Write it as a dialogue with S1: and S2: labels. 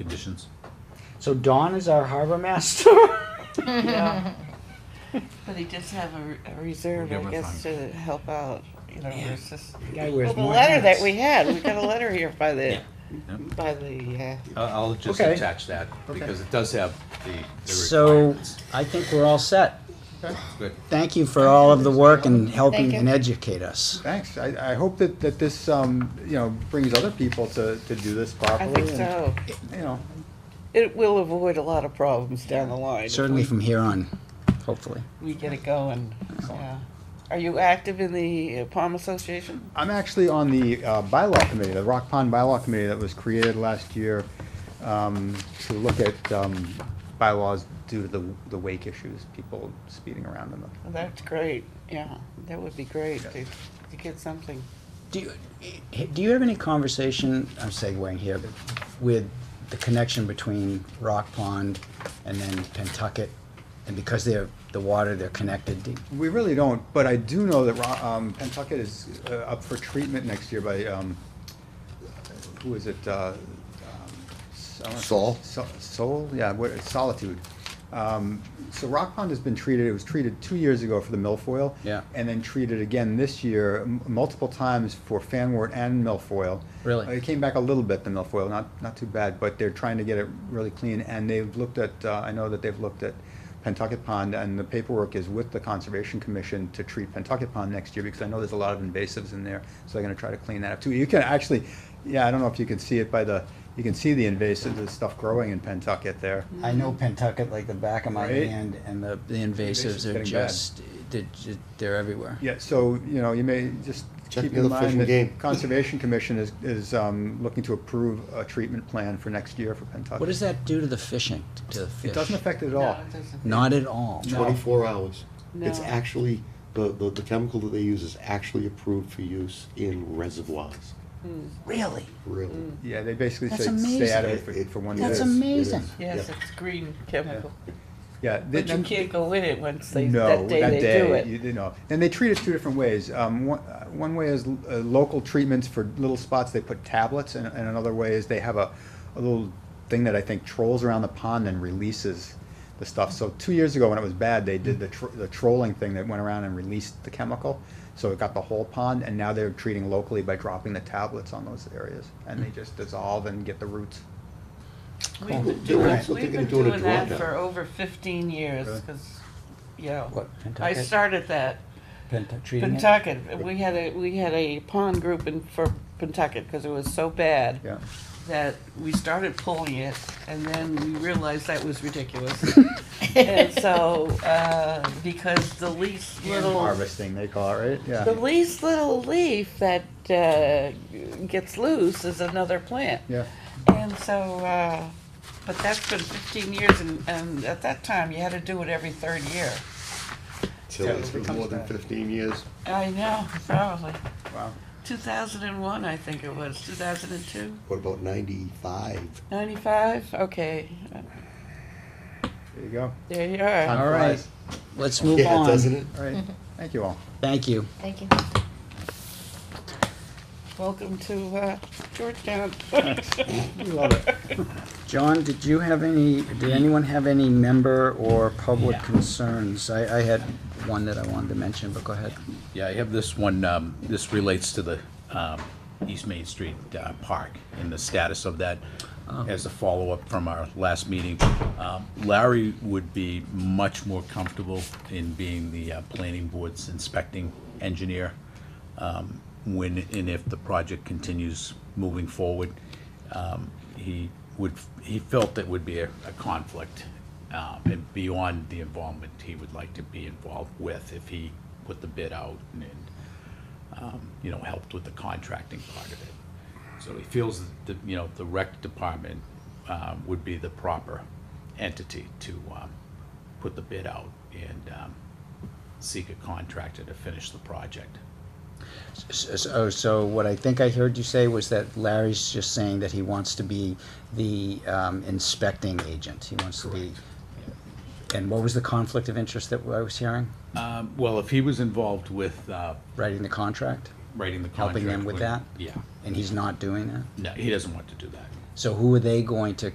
S1: conditions.
S2: So Dawn is our harbor master?
S3: Yeah. But he does have a, a reserve,
S1: We'll give
S3: I
S1: him
S3: guess, to help out, you know, it's just.
S2: Guy wears
S3: Well, the
S2: more
S3: letter that
S2: hats.
S3: we had, we got a letter here by the,
S1: Yeah. Yeah.
S3: by the, uh,
S1: I'll, I'll just
S2: Okay.
S1: attach that,
S4: Okay.
S1: because it does have the, the
S2: So
S1: requirements.
S2: I think we're all set.
S1: Good.
S2: Thank you for all of the work and helping
S5: you.
S2: and educate us.
S4: Thanks. I, I hope that, that this, um, you know, brings other people to, to do this
S3: I
S4: properly.
S3: think
S4: and,
S3: so.
S4: You know,
S3: It will avoid a lot of problems down the line. if
S2: Certainly
S3: we-
S2: from here on, hopefully.
S3: We get it going, yeah. Are you active in the uh, Palm Association?
S4: I'm actually on the uh, bylaw committee, the Rock Pond Bylaw Committee that was created last year um, to look at um, bylaws due to the, the wake issues, people speeding around in
S3: Well, That's great, yeah, that would be great to,
S4: Yeah.
S3: to get something.
S2: Do you, eh, do you have any conversation, I'm segueing here, but with the connection between Rock Pond and then Pentucket? And because they're, the water, they're connected, do-
S4: the. We really don't, but I do know that Ro- um, Pentucket is uh, up for treatment next year by, um, who is it? uh, um, I don't know-
S6: Sol?
S4: So- Sol, yeah, what, Solitude. Um, So Rock Pond has been treated, it was treated two years ago for the milfoil.
S2: Yeah.
S4: And then treated again this year, m- multiple times for fanwort and milfoil.
S2: Really?
S4: Uh, It came back a little bit, the milfoil, not, not too bad, but they're trying to get it really clean. And they've looked at, uh, I know that they've looked at Pentucket Pond, and the paperwork is with the Conservation Commission to treat Pentucket Pond next year, because I know there's a lot of invasives in there, so they're gonna try to clean that up too. You can actually, yeah, I don't know if you can see it by the, you can see the invasive, the stuff growing in Pentucket there.
S2: I know Pentucket like the back of my
S4: Right.
S2: hand, and the, the
S4: Invasive's
S2: invasives are
S4: getting bad.
S2: just, they're, ju- they're everywhere.
S4: Yeah, so, you know, you may just
S6: Check
S4: keep
S6: the
S4: in
S6: other fish
S4: mind
S6: and game.
S4: that Conservation Commission is, is, um, looking to approve a treatment plan for next year for Pentucket.
S2: What does that do to the fishing, to the fish?
S4: It doesn't affect it at
S3: No,
S4: all.
S3: it doesn't.
S2: Not at all.
S4: No.
S6: Twenty-four hours. It's
S3: No.
S6: actually, the, the, the chemical that they use is actually approved for use in reservoirs,
S2: Really?
S6: really.
S4: Yeah, they basically
S2: That's
S4: say, stay out of it
S6: It-
S4: for,
S6: it-
S4: for one
S6: it
S4: year.
S2: That's
S6: is, it
S2: amazing.
S6: is,
S3: Yes,
S6: yeah.
S3: it's green chemical,
S4: Yeah. they-
S3: but you can't go in it once they,
S4: No,
S3: that day they do it.
S4: you you know. And they treat it two different ways. Um, one, uh, one way is uh, local treatments for little spots, they put tablets, and, and another way is they have a, a little thing that I think trolls around the pond and releases the stuff. So two years ago, when it was bad, they did the, tr- the trolling thing that went around and released the chemical. So it got the whole pond, and now they're treating locally by dropping the tablets on those areas, and they just dissolve and get the roots.
S3: We've been
S6: They're
S3: doing,
S6: also
S3: we've
S6: thinking
S3: been
S6: of doing a
S3: doing that
S6: drawdown.
S3: for over fifteen years,
S4: Really?
S3: cause, yeah.
S2: What,
S3: I
S2: Pentucket?
S3: started that,
S2: Pentu- treating it?
S3: Pentucket, we had a, we had a pond group in, for Pentucket, cause it was so bad.
S4: Yeah.
S3: That we started pulling it, and then we realized that was ridiculous. And so, uh, because the least little,
S4: Harvesting, they call it, right? Yeah.
S3: the least little leaf that, uh, gets loose is another plant.
S4: Yeah.
S3: And so, uh, but that's been fifteen years and, and at that time you had to do it every third year.
S6: Till
S4: Yeah,
S6: it's
S4: it
S6: been
S4: becomes
S6: more than
S4: bad.
S6: fifteen years.
S3: I know, probably.
S4: Wow.
S3: Two thousand and one, I think it was, two thousand and two,
S6: What about ninety-five?
S3: ninety-five, okay,
S4: There you go.
S3: there you are.
S4: Time
S2: All right.
S4: flies.
S2: Let's move
S6: Yeah,
S2: on.
S6: doesn't it?
S4: All right. Thank you all.
S2: Thank you.
S5: Thank you.
S3: Welcome to, uh, Georgetown.
S2: John, did you have any, did anyone have any member or public concerns? I, I had one that I wanted to mention, but go ahead.
S1: Yeah, I have this one, um, this relates to the, um, East Main Street, uh, park and the status of that
S2: Oh.
S1: as a follow-up from our last meeting. Um, Larry would be much more comfortable in being the, uh, planning board's inspecting engineer, um, when and if the project continues moving forward. Um, he would, he felt that would be a, a conflict, um, and beyond the involvement he would like to be involved with if he put the bid out and, and, um, you know, helped with the contracting part of it. So he feels that, the, you know, the rec department, um, would be the proper entity to, um, put the bid out and, um, seek a contractor to finish the project.
S2: So, oh, so what I think I heard you say was that Larry's just saying that he wants to be the um, inspecting agent. He wants to be. And what was the conflict of interest that I was hearing?
S1: Um, well, if he was involved with, uh,
S2: Writing the contract?
S1: writing the contract.
S2: Helping them with
S1: when-
S2: that?
S1: Yeah,
S2: And he's not doing that?
S1: no, he doesn't want to do that.
S2: So who are they going to